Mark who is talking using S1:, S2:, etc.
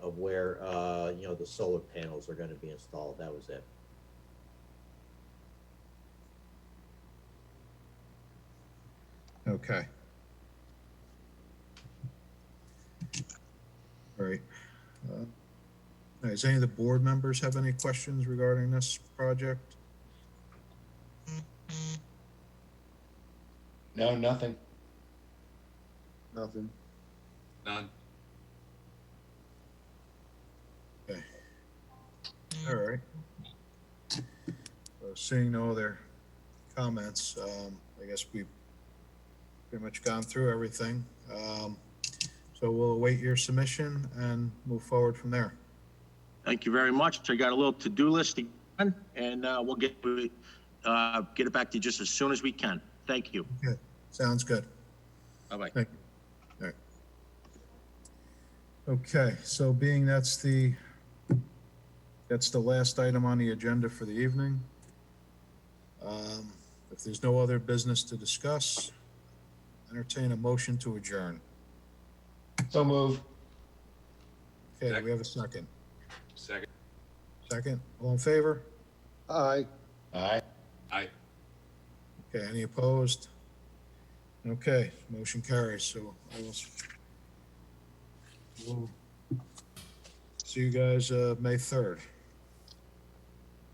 S1: where, uh, you know, the solar panels are gonna be installed, that was it.
S2: Okay. All right. Uh, all right, Does any of the board members have any questions regarding this project?
S3: No, nothing.
S4: Nothing.
S5: None.
S2: All right. Uh, Seeing no other comments, um, I guess we've pretty much gone through everything. Um, so we'll await your submission and move forward from there.
S6: Thank you very much. I got a little to-do list to done, and uh, we'll get, uh, get it back to you just as soon as we can. Thank you.
S2: Sounds good.
S6: Bye-bye.
S2: Thank you. All right. Okay, so being that's the, that's the last item on the agenda for the evening. Um, If there's no other business to discuss, entertain a motion to adjourn.
S3: So move.
S2: Okay, do we have a second?
S5: Second.
S2: Second, all in favor?
S4: Aye.
S3: Aye.
S5: Aye.
S2: Okay, any opposed? Okay, motion carries, so I will. s- we'll See you guys, uh, May third.